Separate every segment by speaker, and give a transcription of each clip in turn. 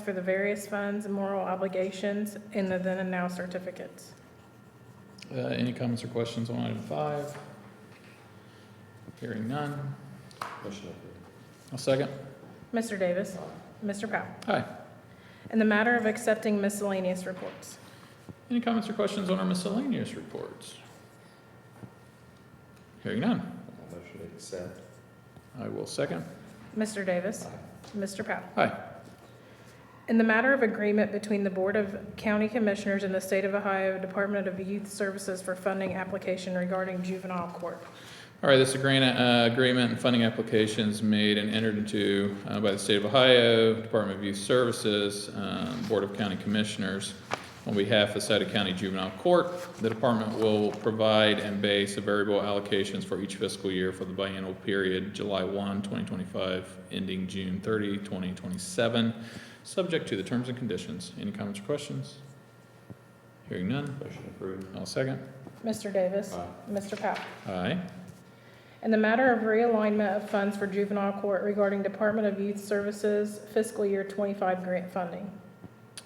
Speaker 1: for the various funds and moral obligations in the then and now certificates.
Speaker 2: Uh, Any comments or questions on item five? Hearing none.
Speaker 3: Motion approved.
Speaker 2: I'll second.
Speaker 1: Mr. Davis. Mr. Powell.
Speaker 2: Aye.
Speaker 1: In the matter of accepting miscellaneous reports.
Speaker 2: Any comments or questions on our miscellaneous reports? Hearing none.
Speaker 3: Uh, Motion to accept.
Speaker 2: I will second.
Speaker 1: Mr. Davis. Mr. Powell.
Speaker 2: Aye.
Speaker 1: In the matter of agreement between the Board of County Commissioners and the State of Ohio Department of Youth Services for funding application regarding juvenile court.
Speaker 2: All right, this agreement, uh, agreement and funding applications made and entered into, uh, by the state of Ohio, Department of Youth Services, um, Board of County Commissioners. On behalf of Sauter County Juvenile Court, the department will provide and base the variable allocations for each fiscal year for the biennial period, July 1, 2025, ending June 30, 2027, subject to the terms and conditions. Any comments or questions? Hearing none,
Speaker 3: Motion approved.
Speaker 2: I'll second.
Speaker 1: Mr. Davis.
Speaker 3: Aye.
Speaker 1: Mr. Powell.
Speaker 2: Aye.
Speaker 1: In the matter of realignment of funds for juvenile court regarding Department of Youth Services fiscal year twenty-five grant funding.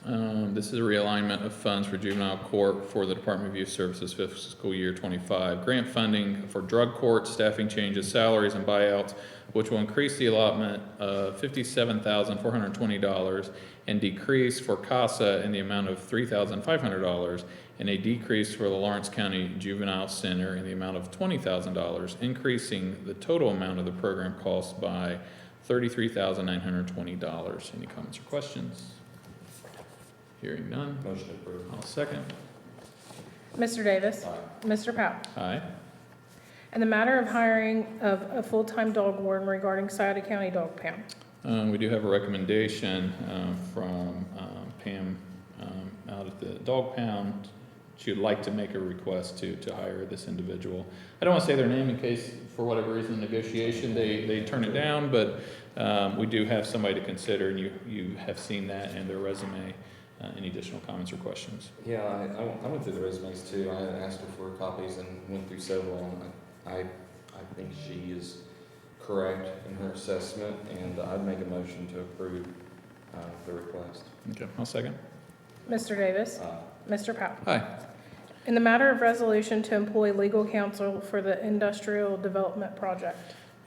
Speaker 2: Um, this is a realignment of funds for juvenile court for the Department of Youth Services fiscal year twenty-five. Grant funding for drug court, staffing changes, salaries, and buyouts, which will increase the allotment of fifty-seven thousand four hundred and twenty dollars and decrease for CASA in the amount of three thousand five hundred dollars and a decrease for the Lawrence County Juvenile Center in the amount of twenty thousand dollars, increasing the total amount of the program cost by thirty-three thousand nine hundred and twenty dollars. Any comments or questions? Hearing none,
Speaker 3: Motion approved.
Speaker 2: I'll second.
Speaker 1: Mr. Davis.
Speaker 3: Aye.
Speaker 1: Mr. Powell.
Speaker 2: Aye.
Speaker 1: In the matter of hiring of a full-time dog warden regarding Sauter County Dog Pound.
Speaker 2: Um, we do have a recommendation, um, from, um, Pam, um, out at the dog pound. She would like to make a request to, to hire this individual. I don't wanna say their name in case, for whatever reason, negotiation, they, they turn it down, but, um, we do have somebody to consider, and you, you have seen that in their resume. Uh, any additional comments or questions?
Speaker 3: Yeah, I, I went- I went through the resumes too. I asked her for copies and went through several. and I, I think she is correct in her assessment, and I'd make a motion to approve uh, the request.
Speaker 2: Okay, I'll second.
Speaker 1: Mr. Davis.
Speaker 3: Aye.
Speaker 1: Mr. Powell.
Speaker 2: Aye.
Speaker 1: In the matter of resolution to employ legal counsel for the industrial development project.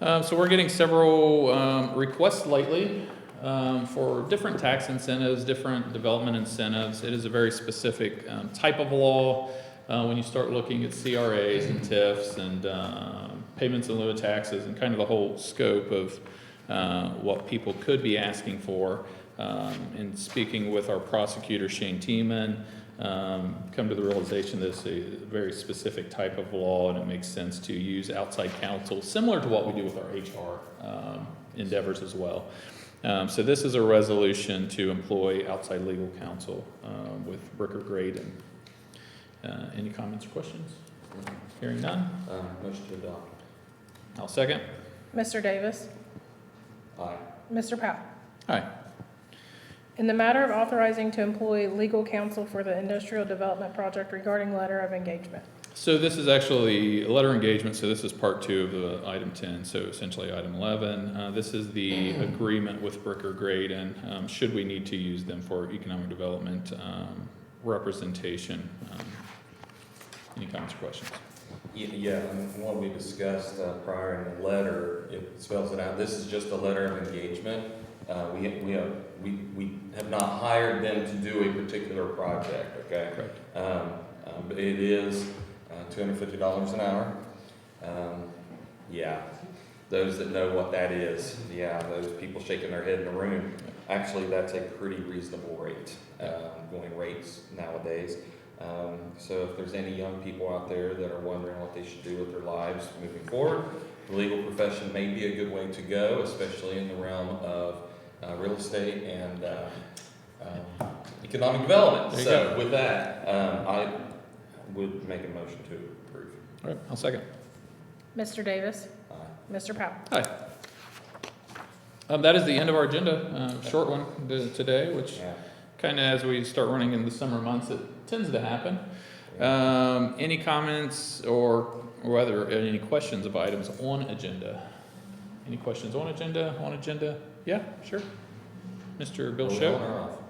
Speaker 2: Uh, so we're getting several um, requests lately um, for different tax incentives, different development incentives. It is a very specific um, type of law. Uh, when you start looking at CRAs and TIFs and um, payments in lieu of taxes and kind of the whole scope of uh, what people could be asking for, um, and speaking with our prosecutor Shane Tiemann, um, come to the realization that it's a very specific type of law and it makes sense to use outside counsel, similar to what we do with our HR um, endeavors as well. Um, so this is a resolution to employ outside legal counsel um, with Ricker Graydon. Uh, any comments or questions? Hearing none,
Speaker 3: Uh, Motion to adopt.
Speaker 2: I'll second.
Speaker 1: Mr. Davis.
Speaker 3: Aye.
Speaker 1: Mr. Powell.
Speaker 2: Aye.
Speaker 1: In the matter of authorizing to employ legal counsel for the industrial development project regarding letter of engagement.
Speaker 2: So this is actually a letter engagement, so this is part two of the item ten, so essentially item eleven. Uh, this is the agreement with Bricker Graydon, um, should we need to use them for economic development, um, representation. um, Any comments or questions?
Speaker 3: Ye- Yeah, and what we discussed uh, prior in the letter, it spells it out, this is just a letter of engagement. Uh, We, we have, we, we have not hired them to do a particular project, okay?
Speaker 2: Correct.
Speaker 3: Um, um, But it is uh, $250 an hour. Um, Yeah, those that know what that is, yeah, those people shaking their head in the room. Actually, that's a pretty reasonable rate, um, going rates nowadays. Um, So if there's any young people out there that are wondering what they should do with their lives moving forward, the legal profession may be a good way to go, especially in the realm of uh, real estate and um, um, economic development.
Speaker 2: There you
Speaker 3: So with that, um, I would make a motion to approve.
Speaker 2: All right, I'll second.
Speaker 1: Mr. Davis.
Speaker 3: Aye.
Speaker 1: Mr. Powell.
Speaker 2: Hi. Um, that is the end of our agenda, uh, short one to- today, which
Speaker 3: Yeah.
Speaker 2: kind of as we start running in the summer months, it tends to happen. Um, any comments or whether, any questions of items on agenda? Any questions on agenda, on agenda? Yeah, sure. Mr. Bill
Speaker 3: We're
Speaker 2: Show.
Speaker 3: on or off?